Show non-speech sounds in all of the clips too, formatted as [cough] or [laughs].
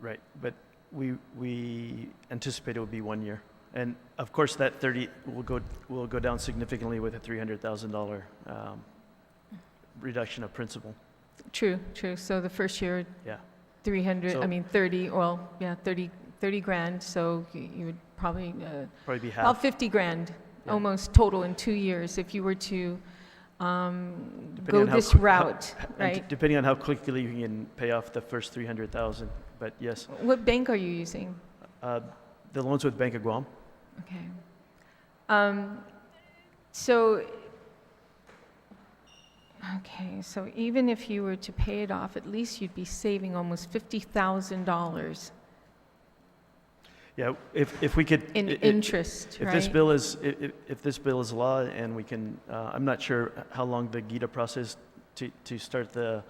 Right, but we, we anticipate it will be one year. And of course, that 30 will go, will go down significantly with a $300,000 um, reduction of principal. True, true. So the first year, Yeah. 300, So- I mean, 30, well, yeah, 30, 30 grand, so y- you would probably, uh, Probably be about half, 50 grand, Yeah. almost total in two years, if you were to um, Depending go on how this quick- how- route, [laughs] and d- right? depending on how quickly you can pay off the first 300,000. But yes, What bank are you using? uh, the loans with Bank of Guam, Okay. Um, so, okay, so even if you were to pay it off, at least you'd be saving almost $50,000 yeah, if, if we could. in i- i- interest, If right? this bill is, i- i- if this bill is law and we can, uh, I'm not sure how long the GITA process to, to start the,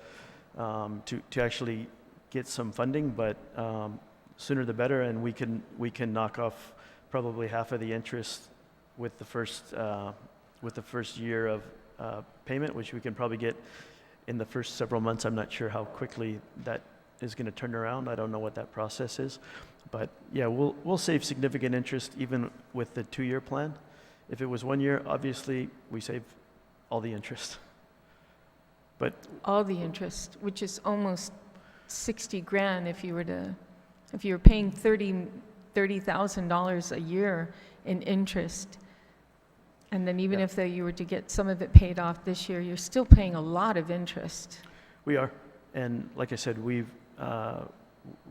um, to, to actually get some funding, but um, sooner the better, and we can, we can knock off probably half of the interest with the first, uh, with the first year of uh, payment, which we can probably get in the first several months. I'm not sure how quickly that is going to turn around. I don't know what that process is. But yeah, we'll, we'll save significant interest even with the two-year plan. If it was one year, obviously, we save all the interest. [laughs] all the interest, which is almost 60 grand if you were to, if you were paying 30, $30,000 a year in interest. And then even Yeah. if though you were to get some of it paid off this year, you're still paying a lot of interest. We are. And like I said, we've, uh,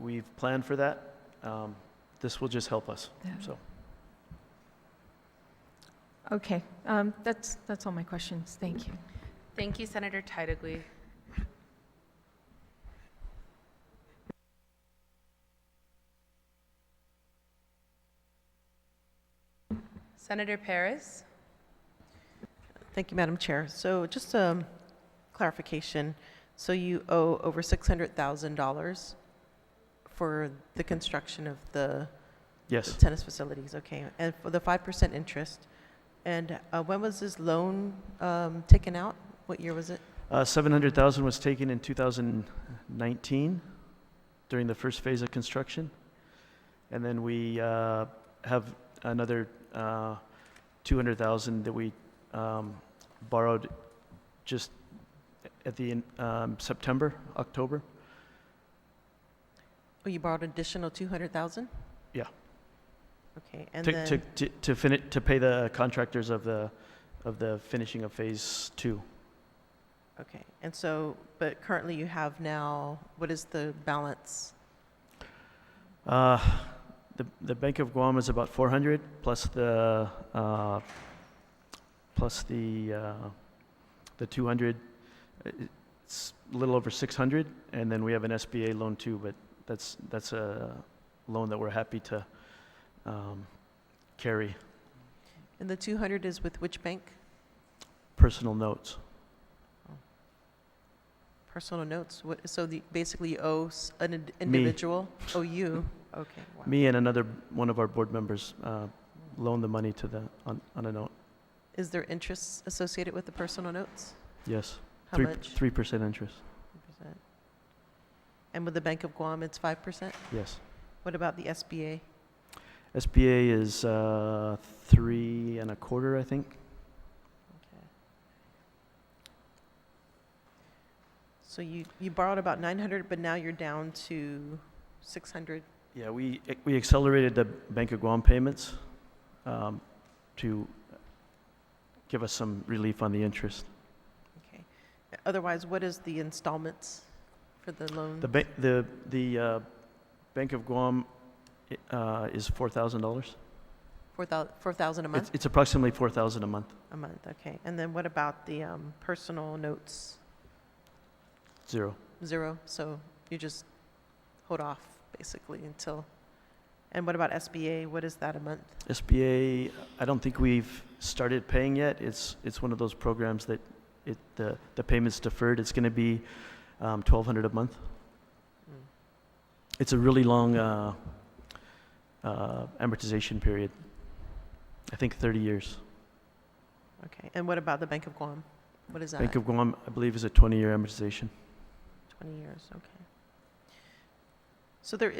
we've planned for that. Um, This will just help us, Yeah. so. Okay, um, that's, that's all my questions. Thank you. Thank you, Senator Titlegy. Senator Paris? Thank you, Madam Chair. So just um, clarification, so you owe over $600,000 for the construction of the Yes, tennis facilities, okay? And for the 5% interest, and uh, when was this loan um, taken out? What year was it? Uh, 700,000 was taken in 2019 during the first phase of construction. And then we uh, have another uh, 200,000 that we um, borrowed just at the, end, um, September, October. Oh, you borrowed an additional 200,000? Yeah. Okay, and to- To, then, to, to fini, to pay the contractors of the, of the finishing of phase two. okay, and so, but currently you have now, what is the balance? Uh, The, the Bank of Guam is about 400, plus the, uh, plus the, uh, the 200, uh, it's a little over 600, and then we have an SBA loan too, but that's, that's a loan that we're happy to um, carry, And the 200 is with which bank? personal notes. Personal notes, what, so the, basically you owe s- an ind- Me. individual? Oh, you, okay, wow. Me and another, one of our board members uh, loaned the money to the, on, on a note, Is there interest associated with the personal notes? yes. How Three- much? 3% interest, 3%. And with the Bank of Guam, it's 5%? yes. What about the SBA? SBA is uh, three and a quarter, I think. So you, you borrowed about 900, but now you're down to 600? Yeah, we, eh, we accelerated the Bank of Guam payments um, to give us some relief on the interest. Mm-hmm. Okay. Otherwise, what is the installments for the loan? The, ba- the, the uh, Bank of Guam i- uh, is $4,000. 4,000 4,000 a It's, month? it's approximately 4,000 a month. A month, okay. And then what about the um, personal notes? Zero. zero, so you just hold off basically until, and what about SBA? What is that a month? SBA, I don't think we've started paying yet. It's, it's one of those programs that it, the, the payment's deferred. It's going to be um, 1,200 a month. Mm, It's a really long uh, uh, amortization period. I think 30 years. Okay, and what about the Bank of Guam? What is that? Bank of Guam, I believe, is a 20-year amortization. Twenty years, okay. So there is.